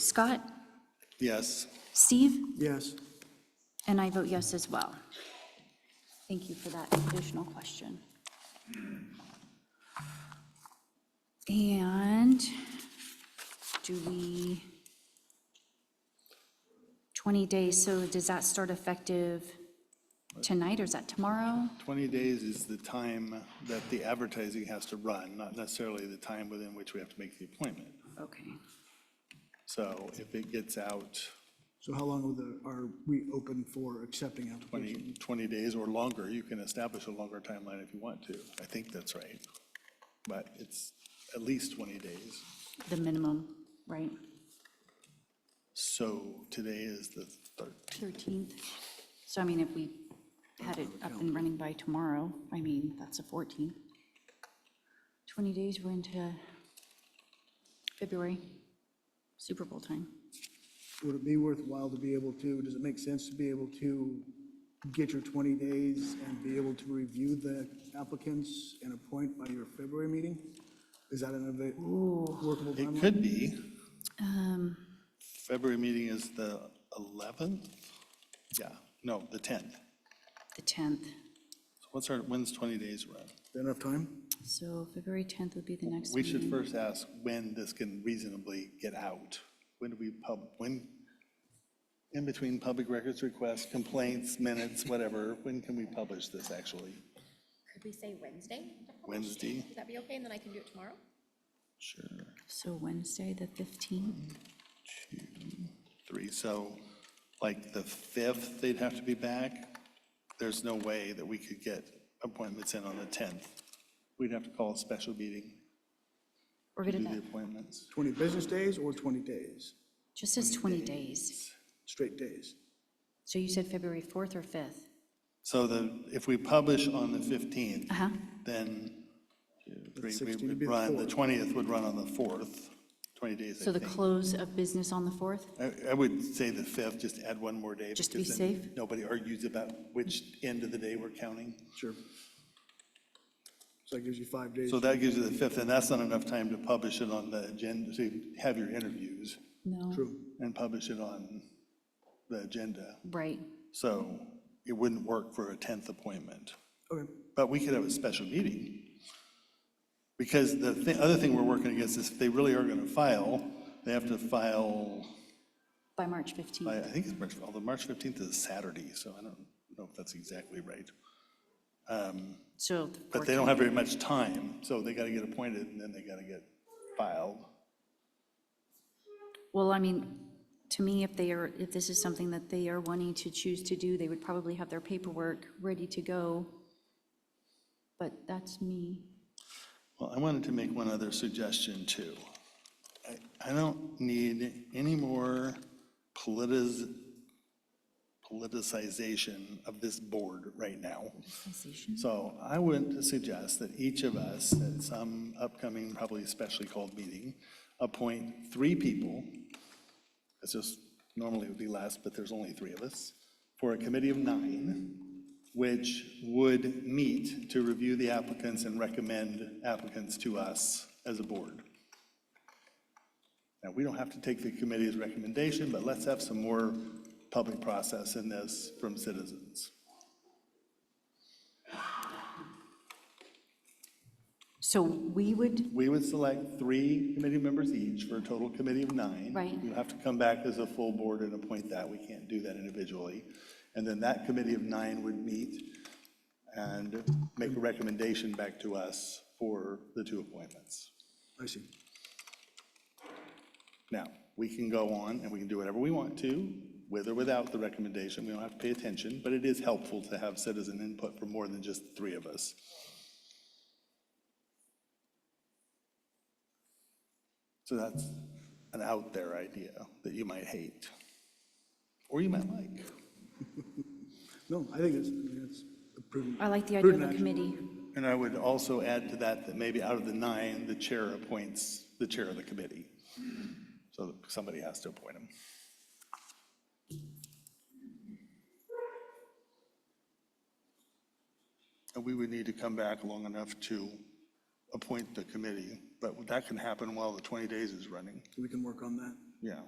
Scott? Yes. Steve? Yes. And I vote yes as well. Thank you for that additional question. And do we, 20 days, so does that start effective tonight or is that tomorrow? 20 days is the time that the advertising has to run, not necessarily the time within which we have to make the appointment. Okay. So if it gets out So how long will the- are we open for accepting applications? 20, 20 days or longer, you can establish a longer timeline if you want to. I think that's right. But it's at least 20 days. The minimum, right? So today is the 13th. 13th. So I mean, if we had it up and running by tomorrow, I mean, that's a 14th. 20 days, we're into February, Super Bowl time. Would it be worthwhile to be able to, does it make sense to be able to get your 20 days and be able to review the applicants and appoint by your February meeting? Is that an ava- workable It timeline? could be. Um, February meeting is the 11th? Yeah, no, the 10th. The 10th, So What's our, when's 20 days run? Is that Enough time? so February 10th would be the next We should meeting. first ask when this can reasonably get out. When do we pub, when, in between public records requests, complaints, minutes, whatever, when can we publish this actually? Could we say Wednesday? to publish? Wednesday? Would that be okay? And then I can do it tomorrow? Sure. So Wednesday, the 15th, Two, three, so like the 5th, they'd have to be back. There's no way that we could get appointments in on the 10th. We'd have to call a special meeting we're to do going the to, appointments. 20 business days or 20 days? just says 20 days. Straight days? So you said February 4th or 5th? So the, if we publish on the 15th, Uh-huh, then three, we 16 would be would the run, the fourth. 20th would run on the 4th, 20 days, so I the think. close of business on the 4th? I- I would say the 5th, just add one more day. Just to be because then safe? Nobody argues about which end of the day we're counting. Sure. So that gives you five days. So that gives you the 5th, and that's not enough time to publish it on the agenda, to have your interviews No, True. and publish it on the agenda. right, So it wouldn't work for a 10th appointment. Okay. But we could have a special meeting. Because the thi- other thing we're working against is if they really are going to file, they have to file, by March 15th. I I think it's March, although March 15th is Saturday, so I don't know if that's exactly right. Um, So. the But they don't have very much time, so they got to get appointed and then they got to get filed. Well, I mean, to me, if they are, if this is something that they are wanting to choose to do, they would probably have their paperwork ready to go. But that's me. Well, I wanted to make one other suggestion, too. I- I don't need any more politiz, politicization of this board right now. So I would suggest that each of us, at some upcoming, probably specially called meeting, appoint three people, it's just, normally it would be less, but there's only three of us, for a committee of nine, which would meet to review the applicants and recommend applicants to us as a board. Now, we don't have to take the committee's recommendation, but let's have some more public process in this from citizens. So we would, We would select three committee members each for a total committee of nine. Right. You have to come back as a full board and appoint that. We can't do that individually. And then that committee of nine would meet and make a recommendation back to us for the two appointments. I see. Now, we can go on and we can do whatever we want to, with or without the recommendation. We don't have to pay attention, but it is helpful to have citizen input from more than just the three of us. So that's an out there idea that you might hate, or you might like. No, I think it's, I mean, it's a prudent. I like the idea of prudent a action. committee. And I would also add to that that maybe out of the nine, the chair appoints the chair of the committee. So somebody has to appoint him. And we would need to come back long enough to appoint the committee, but that can happen while the 20 days is running. We can work on that. Yeah.